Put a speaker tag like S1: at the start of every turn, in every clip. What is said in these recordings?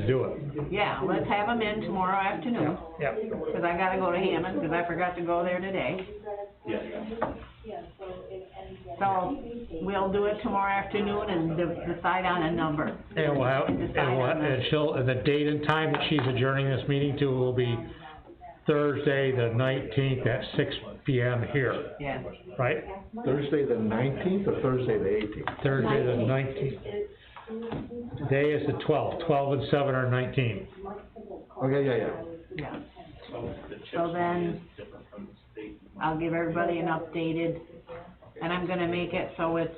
S1: to do it.
S2: Yeah, let's have them in tomorrow afternoon,
S3: Yeah,
S2: because I gotta go to Hammond, because I forgot to go there today. So, we'll do it tomorrow afternoon and de- decide on a number.
S1: And we'll have,
S2: And decide
S1: and we'll,
S2: on the-
S1: and she'll, and the date and time that she's adjourning this meeting to will be Thursday, the nineteenth at six P M here,
S2: Yeah,
S1: right?
S4: Thursday the nineteenth or Thursday the eighteenth?
S1: Thursday, the nineteenth. Today is the twelfth, twelve and seven are nineteen.
S4: Okay, yeah, yeah.
S2: yeah. So then, I'll give everybody an updated, and I'm gonna make it so it's,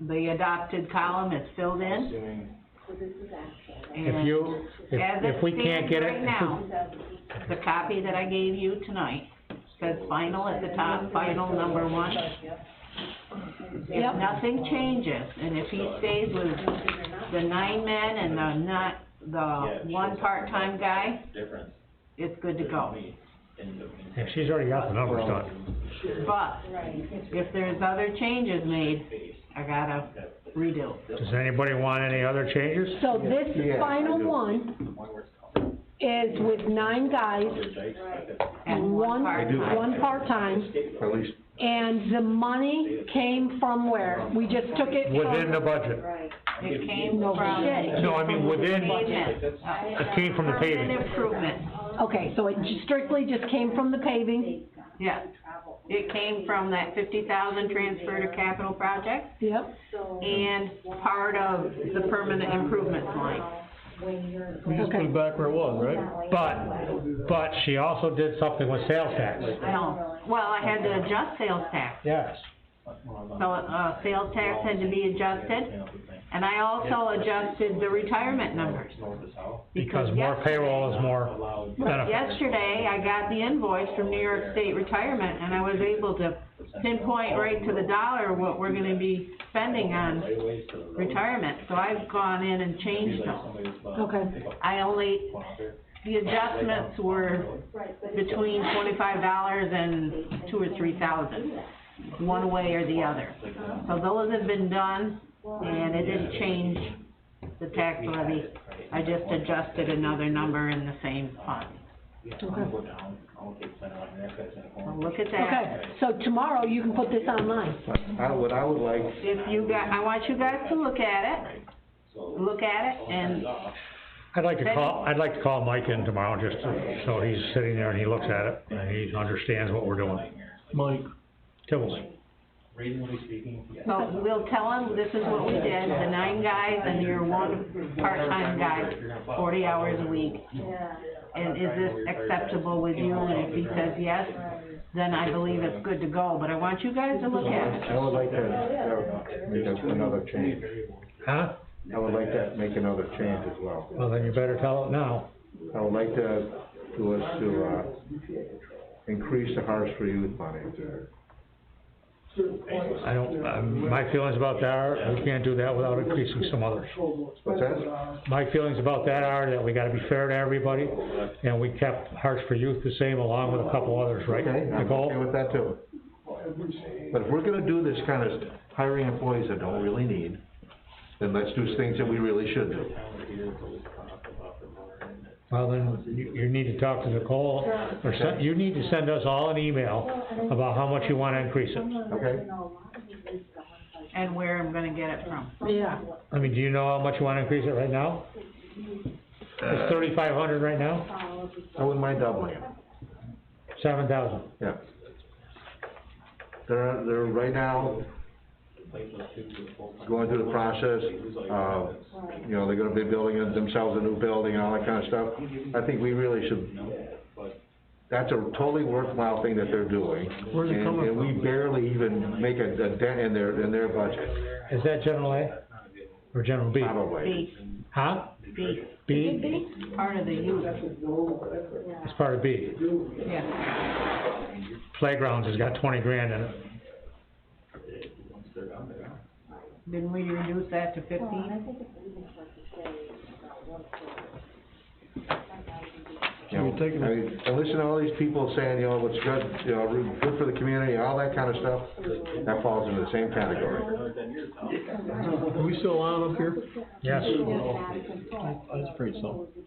S2: the adopted column is filled in.
S1: If you, if, if we can't get it,
S2: And as it stands right now, the copy that I gave you tonight says final at the top, final number one. If nothing changes, and if he stays with the nine men and the not, the one part-time guy,
S5: Difference
S2: it's good to go.
S1: yeah, she's already got the numbers done.
S2: But if there's other changes made, I gotta redo.
S1: Does anybody want any other changes?
S6: So this
S4: Yeah, I
S6: final
S4: do.
S6: one is with nine guys,
S2: And one
S6: one,
S2: part-time.
S6: one part-time,
S4: At least,
S6: and the money came from where? We just took it from.
S1: Within the budget.
S2: It came from.
S1: No, I mean, within,
S2: Pavement.
S1: it came from the
S2: Permanent
S1: paving.
S2: improvement,
S6: Okay, so it strictly just came from the paving,
S2: yeah. It came from that fifty thousand transfer to capital projects
S6: yep,
S2: and part of the permanent improvements line.
S3: we just put it back where it was, right?
S1: But, but she also did something with sales tax.
S2: I don't, well, I had to adjust sales tax,
S1: Yes.
S2: so, uh, sales tax had to be adjusted. And I also adjusted the retirement numbers.
S1: Because more
S2: yesterday-
S1: payroll is more benefit.
S2: Yesterday, I got the invoice from New York State Retirement, and I was able to pinpoint right to the dollar what we're gonna be spending on retirement, so I've gone in and changed them.
S6: okay.
S2: I only, the adjustments were between twenty-five dollars and two or three thousand, one way or the other. So those have been done, and it didn't change the tax levy, I just adjusted another number in the same fund. So Look at that.
S6: Okay, so tomorrow you can put this online.
S4: I, uh, what I would like,
S2: If you got, I want you guys to look at it, look at it, and
S1: I'd like to call, I'd like to call Mike in tomorrow, just to- so he's sitting there and he looks at it, and he understands what we're doing.
S3: Mike,
S1: Tibbles.
S5: Reasonably speaking, yes.
S2: So we'll tell them, this is what we did, the nine guys and your one part-time guy, forty hours a week. And is this acceptable with you? And if he says yes, then I believe it's good to go, but I want you guys to look at it.
S4: I would like to, uh, make a- another change.
S1: Huh?
S4: I would like to make another change as well.
S1: Well, then you better tell it now.
S4: I would like to, to us to, uh, increase the Harvest for Youth money to,
S1: I don't, um, my feelings about that are, we can't do that without increasing some others.
S4: what's that?
S1: My feelings about that are that we gotta be fair to everybody, and we kept Hearts for Youth the same along with a couple others, right,
S4: Okay, I'm okay
S1: Nicole?
S4: with that too. But if we're gonna do this kind of hiring employees that don't really need, then let's do things that we really should do.
S1: Well, then, you, you need to talk to Nicole, or send, you need to send us all an email about how much you wanna increase it.
S4: Okay.
S2: And where I'm gonna get it from.
S6: Yeah,
S1: I mean, do you know how much you wanna increase it right now? It's thirty-five hundred right now,
S4: I wouldn't mind doubling it.
S1: seven thousand.
S4: Yeah. They're, they're right now going through the process, uh, you know, they're gonna be building themselves a new building and all that kinda stuff. I think we really should, that's a totally worthwhile thing that they're doing.
S3: Where's it
S4: and-
S3: coming
S4: And we barely even make a a dent in their, in their budget,
S1: Is that general A? Or general B?
S4: probably.
S2: B,
S1: Huh?
S2: B,
S1: B?
S2: part of the youth,
S1: It's part of B.
S2: yeah.
S1: Playgrounds has got twenty grand in it.
S2: Didn't we reduce that to fifteen?
S4: You know,
S7: people taking
S4: I
S7: it.
S4: mean, and listen to all these people saying, you know, what's good, you know, root- good for the community, all that kinda stuff, that falls into the same category.
S7: Are we still on up here?
S1: Yes.
S7: I was afraid so.